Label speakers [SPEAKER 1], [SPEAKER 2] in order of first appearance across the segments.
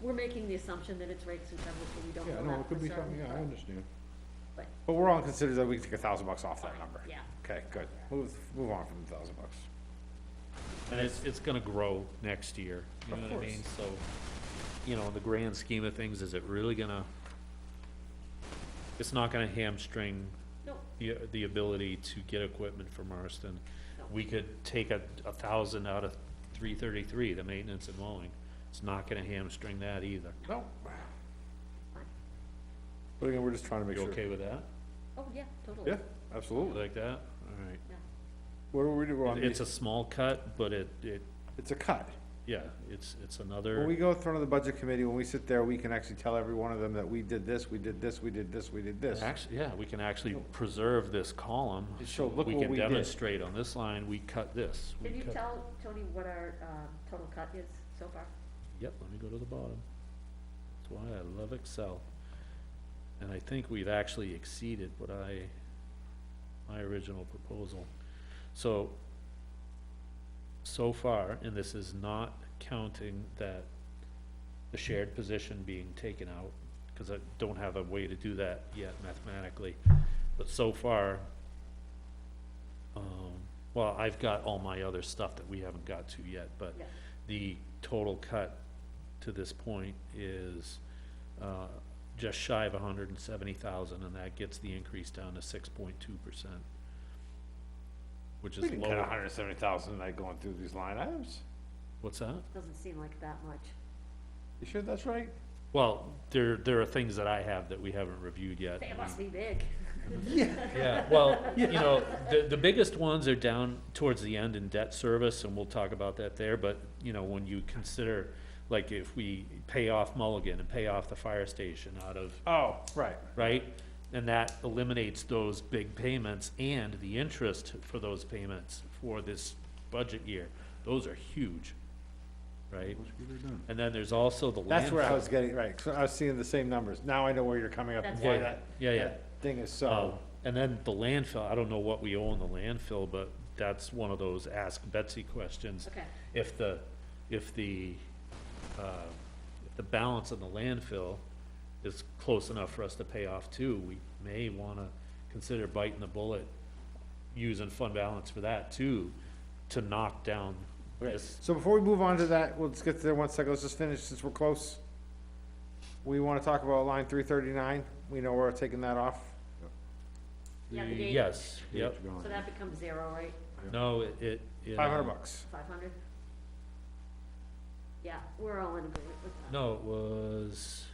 [SPEAKER 1] we're making the assumption that it's rates and covers, but we don't know
[SPEAKER 2] Yeah,
[SPEAKER 1] that for certain.
[SPEAKER 2] no, it could be something, yeah, I
[SPEAKER 1] but-
[SPEAKER 2] understand.
[SPEAKER 1] But,
[SPEAKER 3] But we're all considered that we took a thousand bucks off that number.
[SPEAKER 1] yeah.
[SPEAKER 3] Okay, good. Move, move on from the thousand bucks.
[SPEAKER 4] And it's, it's gonna grow next year, you know what I mean? So, you know, in the grand scheme of things, is it really gonna, it's not gonna hamstring
[SPEAKER 1] no,
[SPEAKER 4] the, the ability to get equipment from Marston.
[SPEAKER 1] No.
[SPEAKER 4] We could take a, a thousand out of three thirty-three, the maintenance and mowing. It's not gonna hamstring that either.
[SPEAKER 3] No. But again, we're just trying to make
[SPEAKER 4] You
[SPEAKER 3] sure.
[SPEAKER 4] okay with that?
[SPEAKER 1] oh, yeah, totally.
[SPEAKER 3] Yeah,
[SPEAKER 4] You
[SPEAKER 3] absolutely.
[SPEAKER 4] Like that? All
[SPEAKER 3] What do we do? I
[SPEAKER 4] right.
[SPEAKER 3] mean,
[SPEAKER 4] It's a small cut, but it, it,
[SPEAKER 3] it's a cut.
[SPEAKER 4] yeah, it's, it's
[SPEAKER 3] When we
[SPEAKER 4] another,
[SPEAKER 3] go in front of the budget committee, when we sit there, we can actually tell every one of them that we did this, we did this, we did this, we did this.
[SPEAKER 4] actually, yeah, we can actually preserve this column.
[SPEAKER 3] So look
[SPEAKER 4] We
[SPEAKER 3] what
[SPEAKER 4] can
[SPEAKER 3] we did.
[SPEAKER 4] demonstrate on this line, we cut this. we
[SPEAKER 1] Can you
[SPEAKER 4] cut-
[SPEAKER 1] tell, Tony, what our, um, total cut is so far?
[SPEAKER 4] Yep, let me go to the bottom. That's why I love Excel. And I think we've actually exceeded what I, my original proposal. So, so far, and this is not counting that the shared position being taken out, because I don't have a way to do that yet mathematically, but so far, um, well, I've got all my other stuff that we haven't got to yet, but
[SPEAKER 1] Yeah.
[SPEAKER 4] the total cut to this point is, uh, just shy of hundred and seventy thousand, and that gets the increase down to six point two percent. Which
[SPEAKER 3] We
[SPEAKER 4] is
[SPEAKER 3] didn't cut a
[SPEAKER 4] lower,
[SPEAKER 3] hundred and seventy thousand, like going through these line items.
[SPEAKER 4] what's that?
[SPEAKER 1] Doesn't seem like that much.
[SPEAKER 3] You sure that's right?
[SPEAKER 4] Well, there, there are things that I have that we haven't reviewed yet.
[SPEAKER 1] They
[SPEAKER 4] I
[SPEAKER 1] must
[SPEAKER 4] mean-
[SPEAKER 1] be big.
[SPEAKER 4] Yeah, well, you know, the, the biggest ones are down towards the end in debt service, and we'll talk about that there, but, you know, when you consider, like, if we pay off Mulligan and pay off the fire station out of,
[SPEAKER 3] Oh, right.
[SPEAKER 4] right? And that eliminates those big payments and the interest for those payments for this budget year. Those are huge, right? And then there's also the landfill.
[SPEAKER 3] That's where I was getting, right, so I was seeing the same numbers. Now I know where you're coming up and
[SPEAKER 1] That's
[SPEAKER 3] why
[SPEAKER 1] right.
[SPEAKER 3] that.
[SPEAKER 4] Yeah, yeah.
[SPEAKER 3] that Thing is
[SPEAKER 4] Um,
[SPEAKER 3] so,
[SPEAKER 4] and then the landfill, I don't know what we owe on the landfill, but that's one of those ask Betsy questions.
[SPEAKER 1] Okay.
[SPEAKER 4] If the, if the, uh, if the balance on the landfill is close enough for us to pay off too, we may wanna consider biting the bullet, using fund balance for that too, to knock down this.
[SPEAKER 3] so before we move on to that, let's get there one second, let's just finish since we're close. We wanna talk about line three thirty-nine. We know we're taking that off.
[SPEAKER 1] Yeah, the gate.
[SPEAKER 4] Yes, yep.
[SPEAKER 1] So that becomes zero, right?
[SPEAKER 4] No, it, it. it,
[SPEAKER 3] Five hundred
[SPEAKER 4] um,
[SPEAKER 3] bucks.
[SPEAKER 1] Five hundred? Yeah, we're all in agreement with that.
[SPEAKER 4] No, it was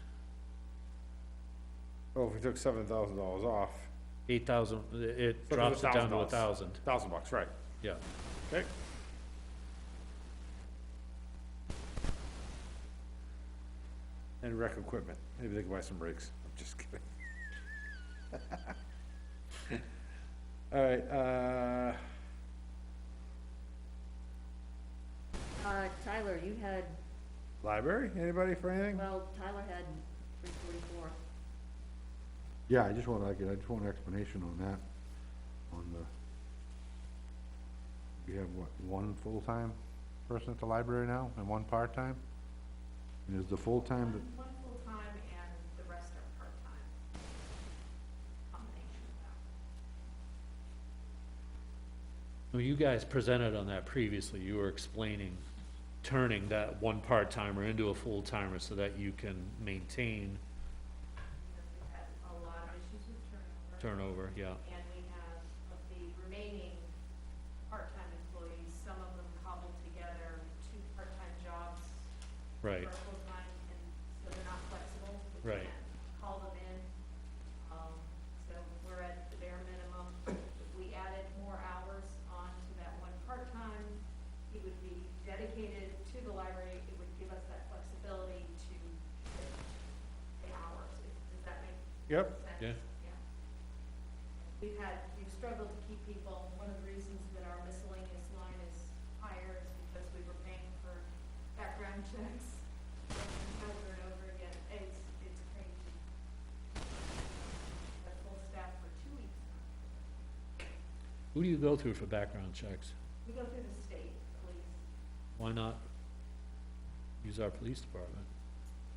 [SPEAKER 3] Oh, if we took seven thousand dollars off,
[SPEAKER 4] eight thousand, it
[SPEAKER 3] So it
[SPEAKER 4] drops
[SPEAKER 3] was
[SPEAKER 4] it down to a
[SPEAKER 3] $1,000.
[SPEAKER 4] thousand,
[SPEAKER 3] thousand bucks, right.
[SPEAKER 4] yeah.
[SPEAKER 3] Okay. And rec equipment, maybe they can buy some rigs, I'm just kidding. Alright, uh,
[SPEAKER 1] Uh, Tyler, you had,
[SPEAKER 3] library, anybody for anything?
[SPEAKER 1] well, Tyler had three forty-four.
[SPEAKER 2] Yeah, I just want, like, I just want an explanation on that, on the, we have, what, one full-time person at the library now, and one part-time? And is the full-time,
[SPEAKER 5] One,
[SPEAKER 2] that-
[SPEAKER 5] one full-time and the rest are part-time. Combination of that.
[SPEAKER 4] Well, you guys presented on that previously, you were explaining turning that one part-timer into a full-timer so that you can maintain
[SPEAKER 5] Because we've had a lot of issues with
[SPEAKER 4] turnover,
[SPEAKER 5] turnover.
[SPEAKER 4] yeah.
[SPEAKER 5] And we have, of the remaining part-time employees, some of them cobbled together two part-time jobs.
[SPEAKER 4] Right.
[SPEAKER 5] For a full-time, and so they're not flexible. We
[SPEAKER 4] Right.
[SPEAKER 5] can't Call them in. Um, so we're at the bare minimum. If we added more hours on to that one part-time, he would be dedicated to the library. It would give us that flexibility to shift the hours. Does that make
[SPEAKER 3] Yep.
[SPEAKER 5] sense?
[SPEAKER 4] Yeah.
[SPEAKER 5] We've had, we've struggled to keep people, one of the reasons that our miscellaneous line is higher is because we were paying for background checks over and over again, it's, it's crazy. But full staff for two weeks now.
[SPEAKER 4] Who do you go through for background checks?
[SPEAKER 5] We go through the state police,
[SPEAKER 4] Why not use our police department?